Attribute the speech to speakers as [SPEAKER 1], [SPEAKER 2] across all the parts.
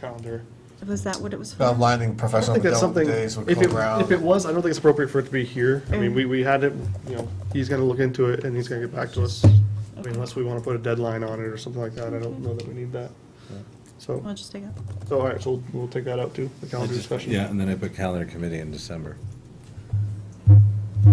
[SPEAKER 1] calendar.
[SPEAKER 2] Was that what it was for?
[SPEAKER 1] I
[SPEAKER 3] Outlining
[SPEAKER 1] don't
[SPEAKER 3] professional
[SPEAKER 1] think that's
[SPEAKER 3] development
[SPEAKER 1] something,
[SPEAKER 3] days
[SPEAKER 1] if
[SPEAKER 3] with
[SPEAKER 1] it,
[SPEAKER 3] Cole Brown.
[SPEAKER 1] if it was, I don't think it's appropriate for it to be here. I mean,
[SPEAKER 2] Mm.
[SPEAKER 1] we, we had it, you know, he's gonna look into it and he's gonna get back to us. I mean, unless we wanna put a deadline on it or something like that, I don't know that we need that. So,
[SPEAKER 2] I'll just take it.
[SPEAKER 1] so all right, so we'll, we'll take that out too, the calendar
[SPEAKER 4] I just-
[SPEAKER 1] discussion.
[SPEAKER 4] Yeah, and then I put calendar committee in December.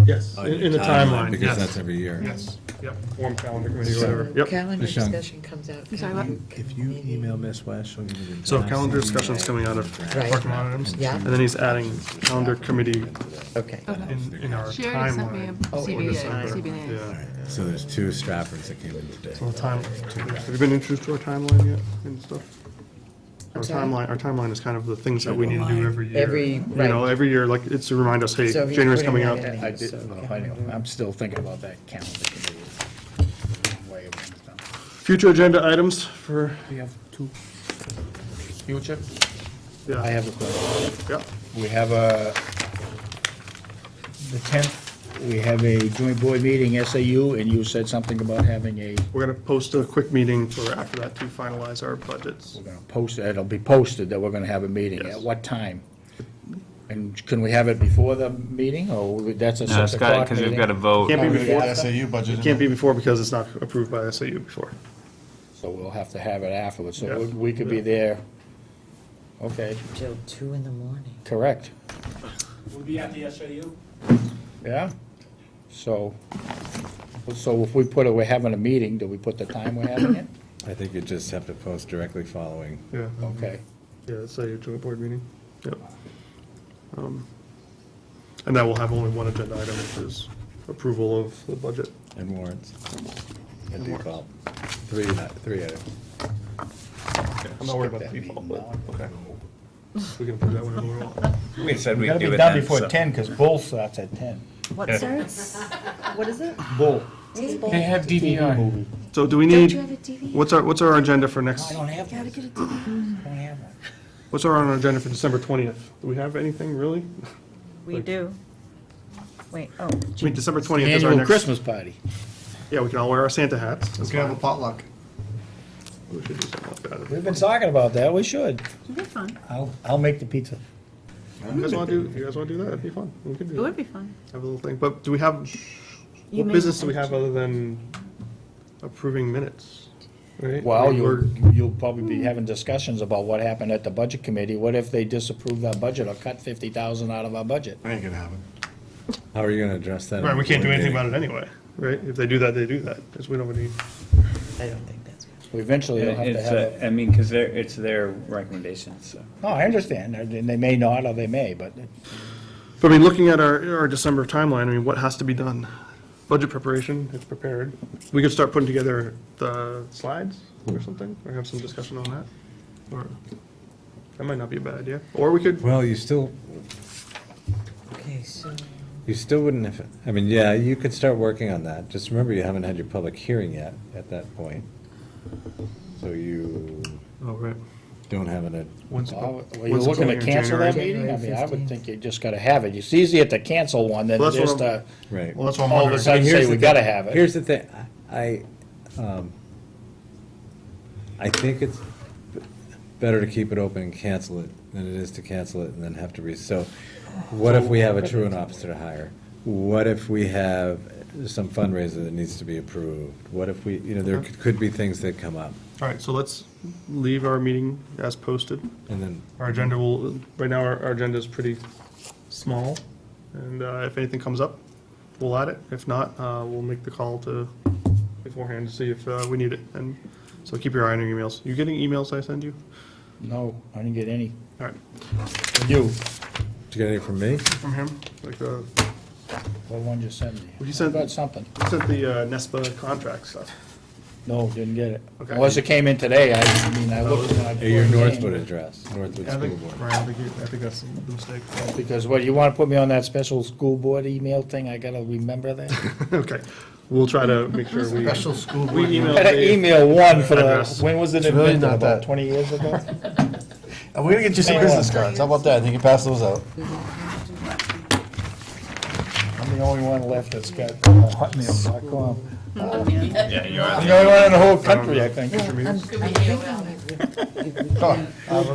[SPEAKER 1] Yes, in in the timeline,
[SPEAKER 4] Uh, Because that's
[SPEAKER 1] yes.
[SPEAKER 4] every year.
[SPEAKER 1] Yes, yep, form calendar committee, or whatever, yep.
[SPEAKER 5] Calendar
[SPEAKER 4] Michelle.
[SPEAKER 5] discussion comes out.
[SPEAKER 2] I'm sorry, what?
[SPEAKER 6] If you email Miss West, she'll give you the.
[SPEAKER 1] So
[SPEAKER 6] draft
[SPEAKER 1] calendar
[SPEAKER 6] CBA.
[SPEAKER 1] discussion's coming out of
[SPEAKER 5] Right.
[SPEAKER 1] parking lot items.
[SPEAKER 5] Yeah.
[SPEAKER 1] And then he's adding calendar committee
[SPEAKER 5] Okay.
[SPEAKER 1] in, in our
[SPEAKER 7] She already sent me a
[SPEAKER 1] timeline. Oh,
[SPEAKER 7] CBA, CBA.
[SPEAKER 1] Yeah.
[SPEAKER 4] So there's two Straffords that came in today.
[SPEAKER 1] So the time, have you been introduced to our timeline yet and stuff? Our
[SPEAKER 5] I'm sorry?
[SPEAKER 1] timeline, our timeline is kind of the things that we need to do every year.
[SPEAKER 5] Every-
[SPEAKER 1] You know,
[SPEAKER 5] right.
[SPEAKER 1] every year, like, it's to remind us, hey,
[SPEAKER 5] So he's
[SPEAKER 1] January's coming up.
[SPEAKER 5] putting that in.
[SPEAKER 6] I did, well, I know, I'm still thinking about that calendar committee. Way over the top.
[SPEAKER 1] Future agenda items for,
[SPEAKER 6] We have two. Future? I
[SPEAKER 1] yeah,
[SPEAKER 6] have a question.
[SPEAKER 1] yeah,
[SPEAKER 6] We have a, the 10th, we have a joint board meeting, SAU, and you said something about having a,
[SPEAKER 1] we're gonna post a quick meeting for after that to finalize our budgets.
[SPEAKER 6] we're going to post, it'll be posted that we're going to have a meeting.
[SPEAKER 1] Yes.
[SPEAKER 6] At what time? And can we have it before the meeting, or that's a 6 o'clock
[SPEAKER 8] because we've
[SPEAKER 6] meeting?
[SPEAKER 8] got to vote.
[SPEAKER 1] Can't be
[SPEAKER 3] We got
[SPEAKER 1] before,
[SPEAKER 3] SAU budget.
[SPEAKER 1] can't be before because it's not approved by SAU before.
[SPEAKER 6] So we'll have to have it afterwards, so
[SPEAKER 1] Yeah.
[SPEAKER 6] we- we could be there. Okay,
[SPEAKER 5] Till two in the morning.
[SPEAKER 6] correct,
[SPEAKER 9] We'll be at the SAU.
[SPEAKER 6] yeah? So, so if we put, it, we're having a meeting, do we put the time we're having it?
[SPEAKER 4] I think you just have to post directly following.
[SPEAKER 1] Yeah,
[SPEAKER 6] Okay.
[SPEAKER 1] yeah, it's a joint board meeting, yep. Um, And that will have only one agenda item, which is approval of the budget.
[SPEAKER 4] And warrants. And
[SPEAKER 1] And warrants.
[SPEAKER 4] default. Three, uh, three items.
[SPEAKER 1] I'm not worried about the default, but, okay. We can approve that whenever we want.
[SPEAKER 8] We said
[SPEAKER 6] We
[SPEAKER 8] we'd
[SPEAKER 6] gotta
[SPEAKER 8] do
[SPEAKER 6] be
[SPEAKER 8] it
[SPEAKER 6] done
[SPEAKER 8] then.
[SPEAKER 6] before
[SPEAKER 8] so-
[SPEAKER 6] ten, because bull starts at ten.
[SPEAKER 2] What starts? What is it?
[SPEAKER 6] Bull.
[SPEAKER 2] They
[SPEAKER 9] have DVR.
[SPEAKER 1] So do we
[SPEAKER 2] Don't
[SPEAKER 1] need,
[SPEAKER 2] you have a TV?
[SPEAKER 1] what's our, what's our agenda for next,
[SPEAKER 6] I don't have one,
[SPEAKER 2] Gotta get a TV.
[SPEAKER 6] I don't have one.
[SPEAKER 1] what's our on our agenda for December 20th? Do we have anything, really?
[SPEAKER 2] We do. Wait, oh,
[SPEAKER 1] I mean, December 20th is our
[SPEAKER 6] Annual
[SPEAKER 1] next,
[SPEAKER 6] Christmas party.
[SPEAKER 1] yeah, we can all wear our Santa hats.
[SPEAKER 3] We
[SPEAKER 1] That's
[SPEAKER 3] could have a
[SPEAKER 1] fine.
[SPEAKER 3] potluck.
[SPEAKER 1] We should do something like that.
[SPEAKER 6] We've been talking about that, we should.
[SPEAKER 2] it'd be fun.
[SPEAKER 6] I'll, I'll make the pizza.
[SPEAKER 1] You guys want to do, you guys want to do that? It'd be fun. We could
[SPEAKER 2] It
[SPEAKER 1] do
[SPEAKER 2] would
[SPEAKER 1] that.
[SPEAKER 2] be fun.
[SPEAKER 1] Have a little thing, but do we have,
[SPEAKER 2] You
[SPEAKER 1] what
[SPEAKER 2] may-
[SPEAKER 1] business do we have other than approving minutes? Right?
[SPEAKER 6] Well,
[SPEAKER 1] We're-
[SPEAKER 6] you'll, you'll probably be having discussions about what happened at the budget committee. What if they disapprove our budget or cut fifty thousand out of our budget?
[SPEAKER 3] That ain't gonna happen.
[SPEAKER 4] How are you going to address that?
[SPEAKER 1] Right, we can't do anything about it anyway, right? If they do that, they do that, because we don't need,
[SPEAKER 5] I don't think that's.
[SPEAKER 6] We Eventually, you'll have to
[SPEAKER 8] It's,
[SPEAKER 6] have a.
[SPEAKER 8] uh, I mean, because they're, it's their recommendations, so.
[SPEAKER 6] No, I understand, and they may not, or they may, but
[SPEAKER 1] But I mean, looking at our, our December timeline, I mean, what has to be done? Budget preparation, it's prepared. We could start putting together the slides or something, or have some discussion on that. Or, that might not be a bad idea. Or we could,
[SPEAKER 4] Well, you still,
[SPEAKER 5] Okay, so.
[SPEAKER 4] you still wouldn't have, I mean, yeah, you could start working on that. Just remember, you haven't had your public hearing yet at that point. So you
[SPEAKER 1] oh, right.
[SPEAKER 4] don't have an,
[SPEAKER 1] When's the
[SPEAKER 6] Well,
[SPEAKER 1] pub-
[SPEAKER 6] Were you
[SPEAKER 1] when's the
[SPEAKER 6] looking to
[SPEAKER 1] public hearing?
[SPEAKER 6] cancel that
[SPEAKER 1] January?
[SPEAKER 6] meeting? I mean, I
[SPEAKER 5] January
[SPEAKER 6] would think you just gotta have it. It's easier to cancel one than
[SPEAKER 1] Well,
[SPEAKER 6] it
[SPEAKER 1] that's
[SPEAKER 6] is
[SPEAKER 1] what I'm-
[SPEAKER 6] to
[SPEAKER 4] right.
[SPEAKER 1] Well, that's what I'm
[SPEAKER 6] all of a
[SPEAKER 1] wondering.
[SPEAKER 6] sudden
[SPEAKER 4] Here's
[SPEAKER 6] say
[SPEAKER 4] the
[SPEAKER 6] we
[SPEAKER 4] thing-
[SPEAKER 6] gotta have it.
[SPEAKER 4] Here's the thing, I, um, I think it's better to keep it open and cancel it than it is to cancel it and then have to re, so what if we have a truant officer to hire? What if we have some fundraiser that needs to be approved? What if we, you know, there could could be things that come up,
[SPEAKER 1] All right, so let's leave our meeting as posted.
[SPEAKER 4] and then
[SPEAKER 1] Our agenda will, right now, our, our agenda is pretty small. And, uh, if anything comes up, we'll add it. If not, uh, we'll make the call to beforehand to see if, uh, we need it. And so keep your eye on your emails. You getting emails I send you?
[SPEAKER 6] No, I didn't get any.
[SPEAKER 1] All right,
[SPEAKER 6] You,
[SPEAKER 4] Did you get anything from me?
[SPEAKER 1] from him, like, uh,
[SPEAKER 6] what one you sent me?
[SPEAKER 1] Well, he sent-
[SPEAKER 6] I got something.
[SPEAKER 1] you sent the, uh, NESPA contract stuff.
[SPEAKER 6] No, didn't get it.
[SPEAKER 1] Okay.
[SPEAKER 6] Unless it came in today, I, I mean, I looked. when I-
[SPEAKER 4] Hey, Your Northwood address, Northwood
[SPEAKER 1] I
[SPEAKER 4] School
[SPEAKER 1] think,
[SPEAKER 4] Board.
[SPEAKER 1] right, I think, you- I think that's the mistake.
[SPEAKER 6] Because what, you wanna put me on that special school board email thing? I gotta remember that?
[SPEAKER 1] Okay, we'll try to make sure we,
[SPEAKER 3] Special school
[SPEAKER 1] we
[SPEAKER 3] board.
[SPEAKER 1] email
[SPEAKER 6] I gotta
[SPEAKER 1] Dave.
[SPEAKER 6] email one for the,
[SPEAKER 1] Address.
[SPEAKER 6] when was it
[SPEAKER 3] It's really
[SPEAKER 6] invented?
[SPEAKER 3] not
[SPEAKER 6] About
[SPEAKER 3] that.
[SPEAKER 6] twenty years ago?
[SPEAKER 3] And we're gonna get you some
[SPEAKER 6] Hang on.
[SPEAKER 3] business cards. How about that? You can pass those out.
[SPEAKER 6] I'm the only one left that's got uh, hotmail.com.
[SPEAKER 8] Yeah, you are.
[SPEAKER 6] I'm the only one in the whole country, I think.
[SPEAKER 5] I'm, I'm thinking if- if we
[SPEAKER 3] Go on.
[SPEAKER 5] could